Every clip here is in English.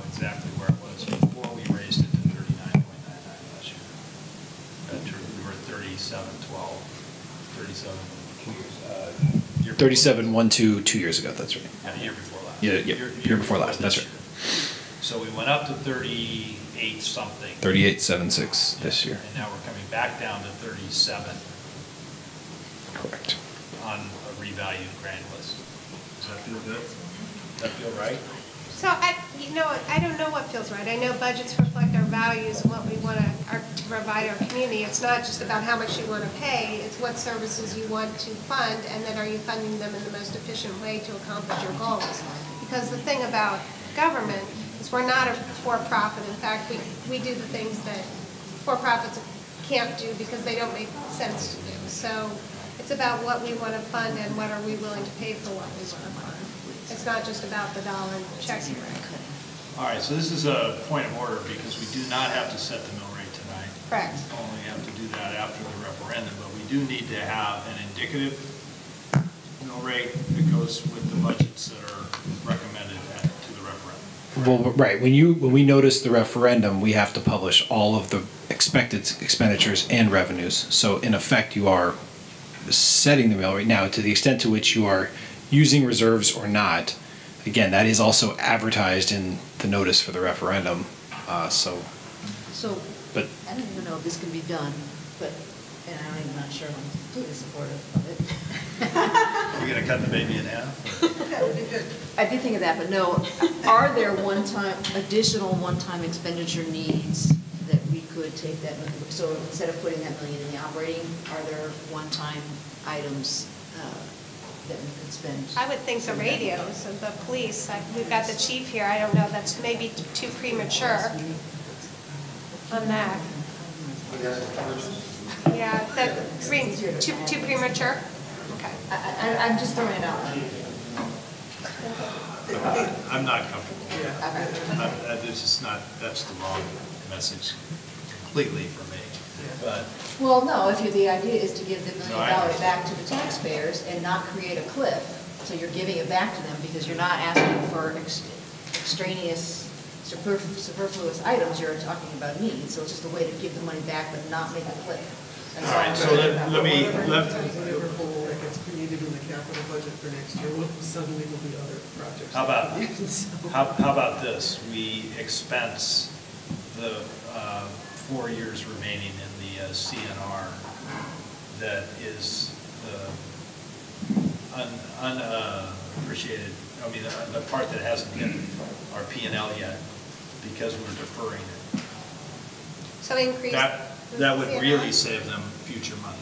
Uh, uh, Thirty-seven, one, two, two years ago, that's right. And the year before last. Yeah, yeah, year before last, that's this right. year. So we went up to thirty-eight something. Thirty-eight, seven, six this year. And now we're coming back down to thirty-seven Correct. on a revalued grand list. Does that feel good? Does that feel right? So I, you know, I don't know what feels right. I know budgets reflect our values and what we want to, our, to provide our community. It's not just about how much you want to pay, it's what services you want to fund, and then are you funding them in the most efficient way to accomplish your goals? Because the thing about government is we're not a for-profit. In fact, we, we do the things that for-profits can't do because they don't make sense to do. So it's about what we want to fund and what are we willing to pay for what we want to fund. It's not just about the dollar check you write. All right, so this is a point of order because we do not have to set the mill rate tonight. Correct. Only have to do that after the referendum, but we do need to have an indicative mill rate that goes with the budgets that are recommended at- to the referendum. Well, right, when you, when we notice the referendum, we have to publish all of the expected expenditures and revenues. So in effect, you are setting the mill rate now to the extent to which you are using reserves or not. Again, that is also advertised in the notice for the referendum, uh, so, So, but I don't even know if this can be done, but, and I'm not sure I'm completely supportive of it. Are we going to cut the baby in half? I did think of that, but no, are there one-time, additional one-time expenditure needs that we could take that, so instead of putting that million in the operating, are there one-time items uh, that we could spend? I would think the radios and the police, I- we've got the chief here, I don't know, that's maybe too premature on that. Yeah, that, green, too, too premature? Okay. I, I, I'm just throwing it out. I'm not comfortable. with that. Okay. I'm- that- This is not, that's the wrong message completely for me. But Well, no, if you, the idea is to give the No, I million dollars understand. back to the taxpayers and not create a cliff, so you're giving it back to them because you're not asking for ex- extraneous superf- superfluous items, you're talking about needs, so it's just a way to give the money back but not make a cliff. That's All right, I'm so saying let- about let it. me- Whatever let- Whatever hole that gets created in the capital budget for next year, will suddenly will be other projects. How about, that you can sell. how, how about this? We expense the uh, four years remaining in the uh, CNR that is the un- unappreciated, I mean, uh, the- the part that hasn't been our P and L yet because we're deferring it. So increase. That, that would Yeah. really save them future money.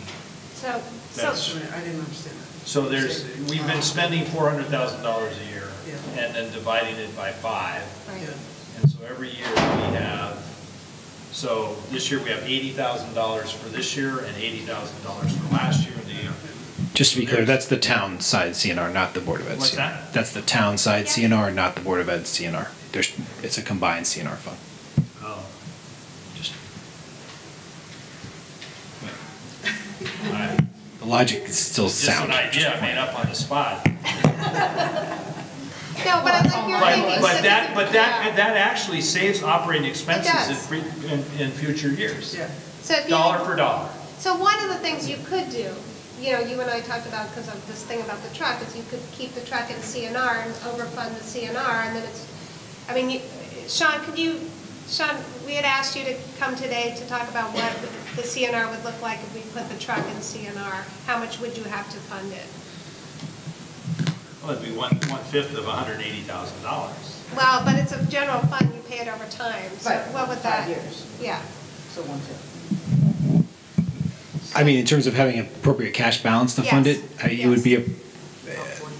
So, That's- so, Sorry, I didn't understand that. So there's, we've been spending four hundred thousand dollars a year Yeah. and then dividing it by five. right. Yeah. And so every year we have, so this year we have eighty thousand dollars for this year and eighty thousand dollars for last year and the year. just to be clear, that's the town side CNR, not the Board of Ed. What's CNR. that? That's the town side Yeah. CNR, not the Board of Ed CNR. There's, it's a combined CNR fund. Oh. Just, all right. the logic is still Just an sound. idea I made up on the spot. No, but I like your But, thinking. but so that, but that, yeah. that actually saves operating expenses in, does. free- in, in future years. Yeah. So if you- Dollar for dollar. So one of the things you could do, you know, you and I talked about, because of this thing about the truck, is you could keep the truck in CNR and overfund the CNR, and then it's, I mean, you- Sean, could you, Sean, we had asked you to come today to talk about what the CNR would look like if we put the truck in CNR. How much would you have to fund it? Well, it'd be one, one-fifth of hundred and eighty thousand dollars. Well, but it's a general fund, you pay it over time, so Right, what would that? five years. Yeah, So one-fifth. I mean, in terms of having appropriate cash balance to fund Yes. it, I- it would be, a. About 40.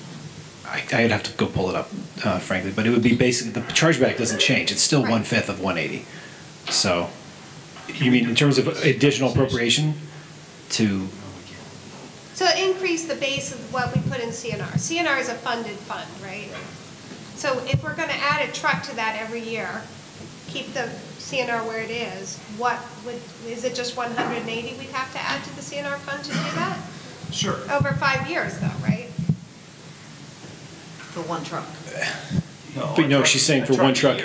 I- I'd have to go pull it up, uh, frankly, but it would be basically, the chargeback doesn't change. It's still Right. one-fifth of 180. So, you mean in terms of additional appropriation to, No, we can't. so increase the base of what we put in CNR. CNR is a funded fund, right? So if we're gonna add a truck to that every year, keep the CNR where it is, what would, is it just one hundred and eighty we'd have to add to the CNR fund to do that? Sure. Over five years though, right? For one truck. But no, a she's saying a for one a truck year.